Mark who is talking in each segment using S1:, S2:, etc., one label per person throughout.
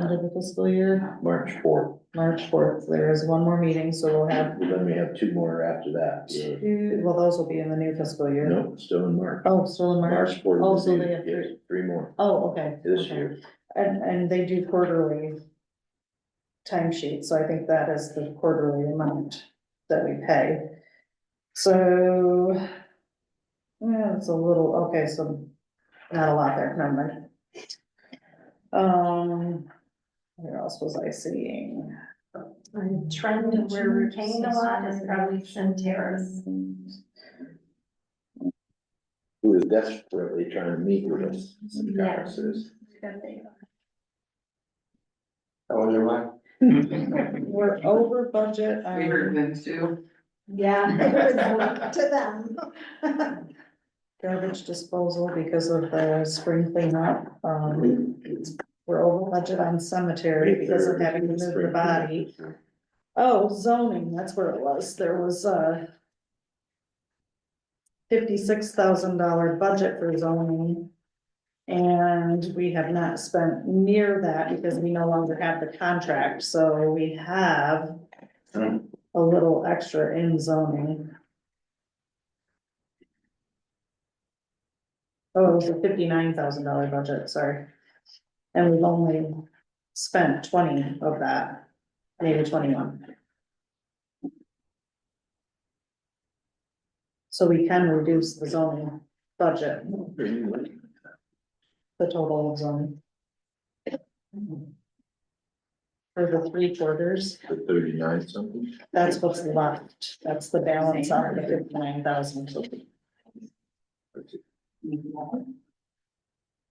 S1: end of the fiscal year,
S2: March fourth,
S1: March fourth, there is one more meeting, so we'll have
S2: then we have two more after that. Yeah.
S1: two, well, those will be in the new fiscal year.
S2: Nope, still in March.
S1: Oh, still in March?
S2: March fourth.
S1: Oh,
S2: is
S1: so
S2: the-
S1: they have
S2: yes,
S1: three.
S2: Three more
S1: Oh, okay.
S2: this
S1: okay.
S2: year.
S1: And, and they do quarterly timesheet, so I think that is the quarterly amount that we pay. So, yeah, it's a little, okay, so not a lot there, never mind. Um, where else was I seeing?
S3: The trend of where we're paying a lot is probably Centerra's.
S2: Who is desperately trying to meet with us, some
S3: Yeah.
S2: conferences.
S4: Oh, you're right.
S1: We're over budget. on-
S5: We heard them too.
S3: Yeah. To them.
S1: garbage disposal because of the spring cleanup. Um, we're over budget on cemetery because of having to move the body. Oh, zoning, that's where it was. There was a fifty-six thousand dollar budget for zoning. And we have not spent near that because we no longer have the contract, so we have a little extra in zoning. Oh, it was a fifty-nine thousand dollar budget, sorry. And we've only spent twenty of that, maybe twenty-one. So we can reduce the zoning budget, the total of zoning. For the three quarters,
S2: For thirty-nine something.
S1: that's what's left, that's the balance on the fifty-nine thousand.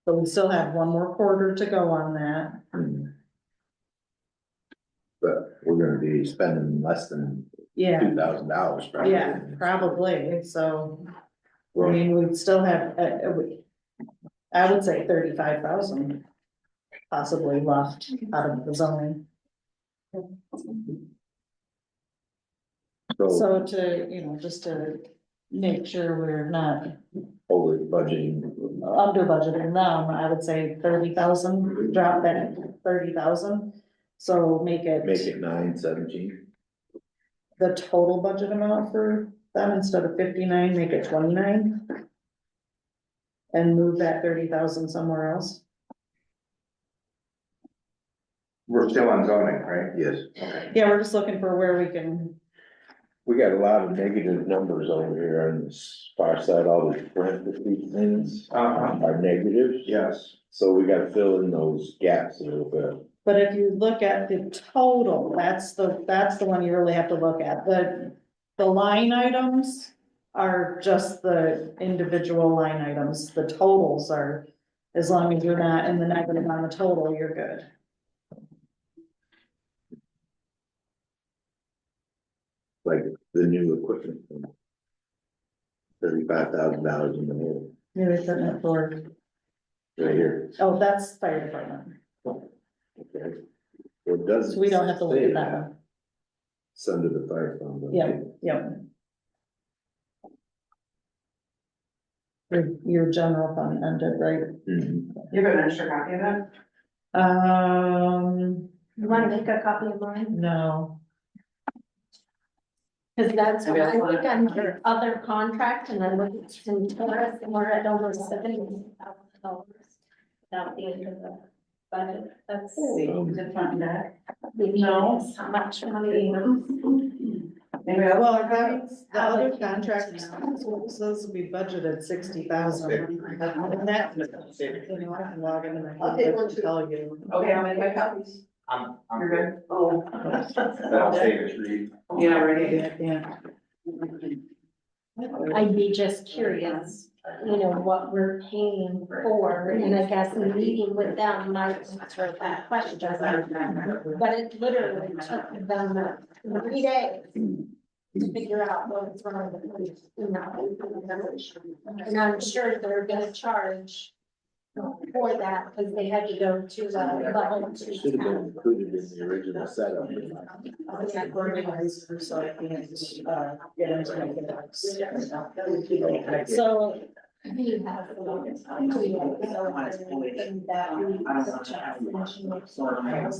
S1: But we still have one more quarter to go on that.
S2: Hmm. But we're gonna be spending less than
S1: Yeah,
S2: two thousand dollars probably.
S1: yeah, probably, so, I mean, we'd still have, uh, uh, we- I would say thirty-five thousand possibly left out of the zoning,
S2: So
S1: so to, you know, just to make sure we're not
S2: over budgeting.
S1: under budgeting them, I would say thirty thousand, drop that thirty thousand. So make
S2: Make
S1: it
S2: it nine seventeen.
S1: the total budget amount for them, instead of fifty-nine, make it twenty-nine. And move that thirty thousand somewhere else.
S4: We're still on zoning, right?
S2: Yes,
S1: Yeah, we're just looking for where we can,
S2: we got a lot of negative numbers over here on this far side, all the parentheses things
S4: Uh-huh,
S2: are negatives.
S4: yes,
S2: So we gotta fill in those gaps a little bit.
S1: but if you look at the total, that's the, that's the one you really have to look at, the. The line items are just the individual line items, the totals are, as long as you're not in the negative on the total, you're good.
S2: like the new equipment. Thirty-five thousand dollars in the hole,
S1: New equipment for,
S2: right here.
S1: oh, that's fire department,
S2: Okay. It doesn't.
S1: so we don't have to look
S2: say
S1: at that one.
S2: It's under the fire fund. okay.
S1: Yeah. Yep. Your, your general fund ended, right?
S2: Mhm.
S5: You got an extra copy of that?
S1: Um,
S3: You wanna make a copy of mine?
S1: no,
S3: Cause that's,
S5: Maybe
S3: I
S5: I'll-
S3: think on your other contract and I'm looking at Centerra's and we're at over seventy thousand dollars. Without the end of the budget, that's.
S5: The front deck.
S3: No. How much money?
S5: Maybe I'll.
S1: well, our guidance, the other contract, those will be budgeted sixty thousand. And that, you know, I can log into my computer to tell you.
S5: Okay, I'll make my copies.
S4: I'm,
S5: You're
S4: I'm,
S5: good? Oh.
S4: that'll save us three.
S5: Yeah, ready?
S1: Yeah, yeah.
S3: I'd be just curious, you know, what we're paying for, and I guess meeting with them might answer that question. But it literally took them three days to
S2: Mm-hmm.
S3: figure out what was wrong with the, you know. And I'm sure they're gonna charge for that, because they had to go to the level
S2: It Should have been
S3: two.
S2: included in the original setup.
S1: Organized, so I can, uh, get into my inbox. So
S3: We have. the longest time. So, it's been that we- such a-